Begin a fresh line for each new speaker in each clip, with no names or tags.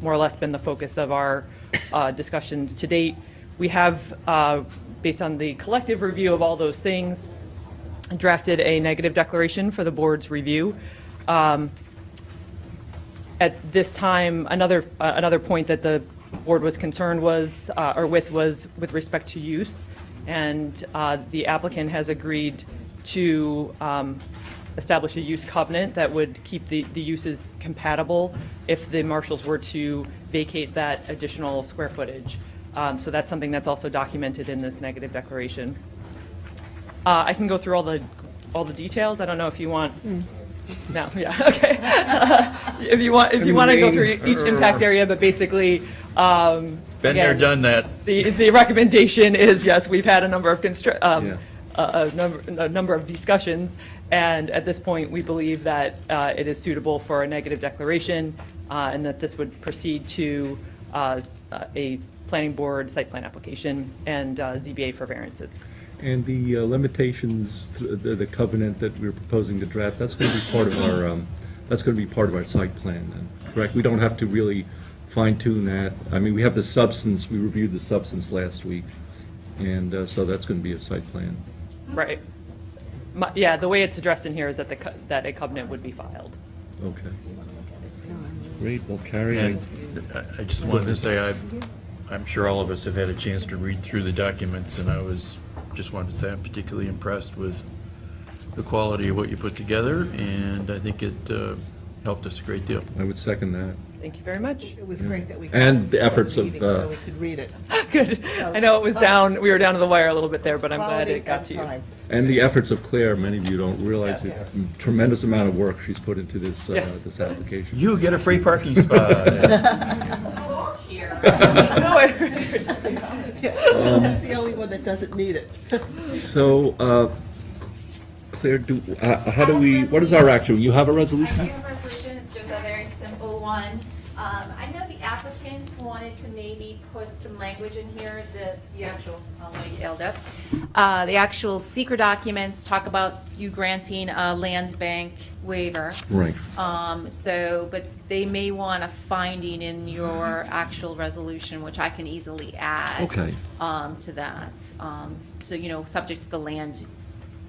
more or less been the focus of our uh, discussions to date. We have, uh, based on the collective review of all those things, drafted a negative declaration for the board's review. Um, At this time, another, uh, another point that the board was concerned was, uh, or with, was with respect to use. And uh, the applicant has agreed to um, establish a use covenant that would keep the, the uses compatible if the marshals were to vacate that additional square footage. Um, So that's something that's also documented in this negative declaration. Uh, I can go through all the, all the details. I don't know if you want. No, yeah, okay. If you want, if you want to go through each impact area, but basically, um.
Been there,
again,
done that.
The, the recommendation is, yes, we've had a number of constr,
Yeah.
um, a, a number, a number of discussions. And at this point, we believe that, uh, it is suitable for a negative declaration, uh, and that this would proceed to, uh, a planning board site plan application and, uh, ZBA for variances.
And the uh, limitations, th- the the covenant that we're proposing to draft, that's going to be part of our, um, that's going to be part of our site plan, then, correct? We don't have to really fine tune that. I mean, we have the substance, we reviewed the substance last week, and uh, so that's going to be a site plan.
Right. My, yeah, the way it's addressed in here is that the, co- that a covenant would be filed.
Okay.
Great, well, Carrie, I-
And I- I just wanted to say, I, I'm sure all of us have had a chance to read through the documents, and I was, just wanted to say, I'm particularly impressed with the quality of what you put together, and I think it uh, helped us a great deal.
I would second that.
Thank you very much.
It was great that we.
And the efforts of,
meeting So
uh,
we could read it.
Good. I know it was down, we were down to the wire a little bit there, but I'm glad
Quality
uh, it got
and
to you.
time.
And the efforts of Claire, many of you don't realize the
Yeah.
tremendous amount of work she's put into this, uh,
Yes.
this application.
You get a free parking spot.
No, I-
Yeah.
Um,
That's the only one that doesn't need it.
So, uh, Claire, do, uh, how do we, what is our action? You have a resolution?
I do have a resolution, it's just a very simple one. Um, I know the applicant wanted to maybe put some language in here, the, the actual, oh, my, you held up. Uh, the actual secret documents talk about you granting a land bank waiver.
Right.
Um, so, but they may want a finding in your
Mm-hmm.
actual resolution, which I can easily add.
Okay.
Um, to that. Um, so, you know, subject to the land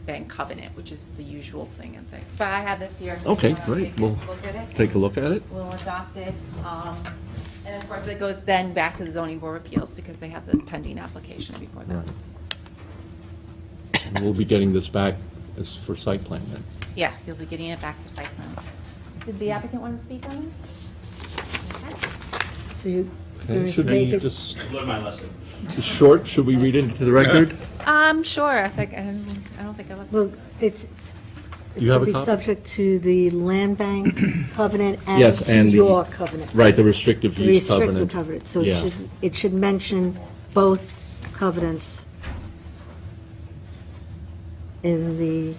bank covenant, which is the usual thing and things. But I have this here. so
Okay,
you wanna
great.
take a
We'll
look at it.
take a look at it.
We'll adopt it. Um, and of course, it goes then back to the zoning board of appeals because they have the pending application before them.
And We'll be getting this back as for site plan then.
Yeah, you'll be getting it back for site plan. Did the applicant want to speak on this?
So you,
Okay, Should
make
we
it-
just,
Learn my lesson.
short, should we read it into the record?
Um, sure, I think, I don't- I don't think I left.
well, it's, it's
You have
going
a
to be
copy?
subject to the land bank covenant and
Yes,
to
and the-
your covenant.
Right, the restrictive
the
use covenant.
Restrictive covenant, so it
Yeah.
should, it should mention both covenants in the,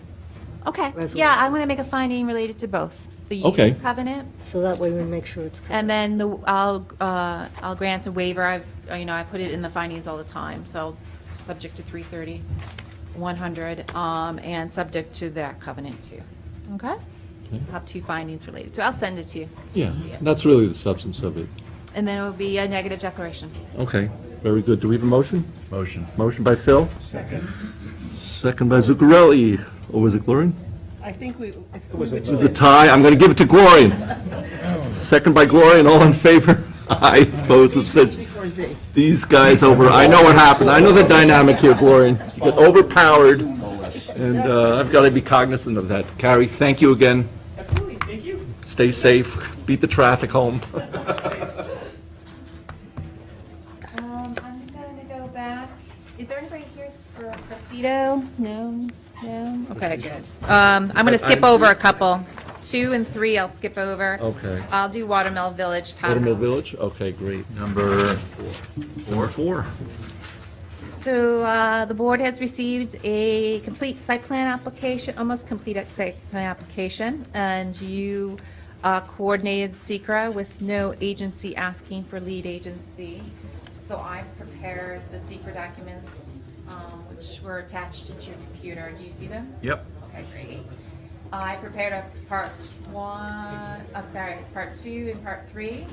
Okay, yeah,
Resolution.
I'm going to make a finding related to both. The
Okay.
use covenant,
so that way we make sure it's covered.
and then the, I'll, uh, I'll grant a waiver, I've, uh, you know, I put it in the findings all the time, so subject to 330, 100, um, and subject to that covenant too. Okay?
Okay.
I'll have two findings related to, it. I'll send it to you.
Yeah, that's really the substance of it.
And then it will be a negative declaration.
Okay, very good. Do we have a motion?
Motion.
Motion by Phil? Second. Second by Zuccarelli, or was it Glorian?
I think we, if we would
This is a tie, I'm going to give it to Glorian. Second by Glorian, all in favor? Aye, opposed, abstentions.
before Z.
These guys over, I know what happened, I know the dynamic here, Glorian. You get overpowered, and uh, I've got to be cognizant of that. Carrie, thank you again.
Absolutely, thank you.
Stay safe, beat the traffic home.
Um, I'm going to go back. Is there anybody here for Cressida? No, no? Okay, good. Um, I'm going to skip over a couple. Two and three I'll skip over.
Okay.
I'll do Watermill Village
Watermill
Townhouse.
Village, okay, great.
Number
Four, four.
So uh, the board has received a complete site plan application, almost complete site plan application, and you uh, coordinated secra with no agency asking for lead agency. So I prepared the secra documents, um, which were attached into your computer. Do you see them?
Yep.
Okay, great. uh, I prepared a part one, oh, sorry, part two and part three.